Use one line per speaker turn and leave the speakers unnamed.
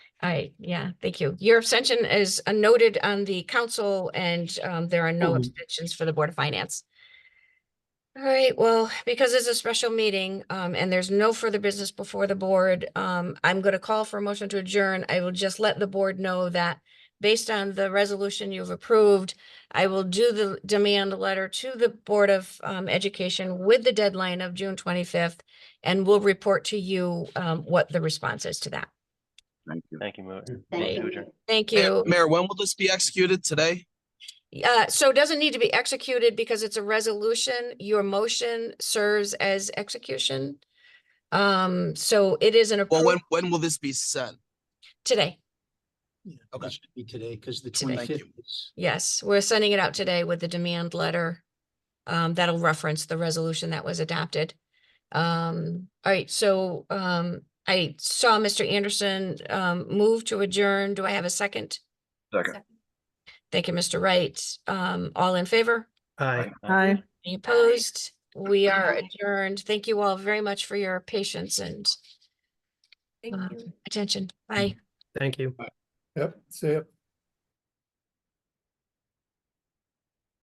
I, yeah, thank you. Your abstention is uh, noted on the council and um, there are no
Mhm.
abstentions for the Board of Finance. All right, well, because it's a special meeting um, and there's no further business before the board, um, I'm going to call for a motion to adjourn. I will just let the board know that based on the resolution you've approved, I will do the demand letter to the Board of um, Education with the deadline of June 25th and will report to you um, what the response is to that.
Thank you.
Thank you, Mo.
Thank
Motion to
you.
adjourn.
Thank
Mayor,
you.
Mayor, when will this be executed today?
Uh, so it doesn't need to be executed because it's a resolution. Your motion serves as execution. Um, so it is an
Well, when,
approved
when will this be sent?
today.
Okay.
It should be today, because the
Today.
Thank you.
twenty-fifth is,
Yes, we're sending it out today with the demand letter. Um, that'll reference the resolution that was adopted. Um, all right, so, um, I saw Mr. Anderson, um, move to adjourn. Do I have a second?
Second.
Thank you, Mr. Wright. Um, all in favor?
Aye.
Aye.
Any opposed? We are adjourned. Thank you all very much for your patience and
Thank
uh,
you.
attention. Bye.
Thank you.
Yep, see it.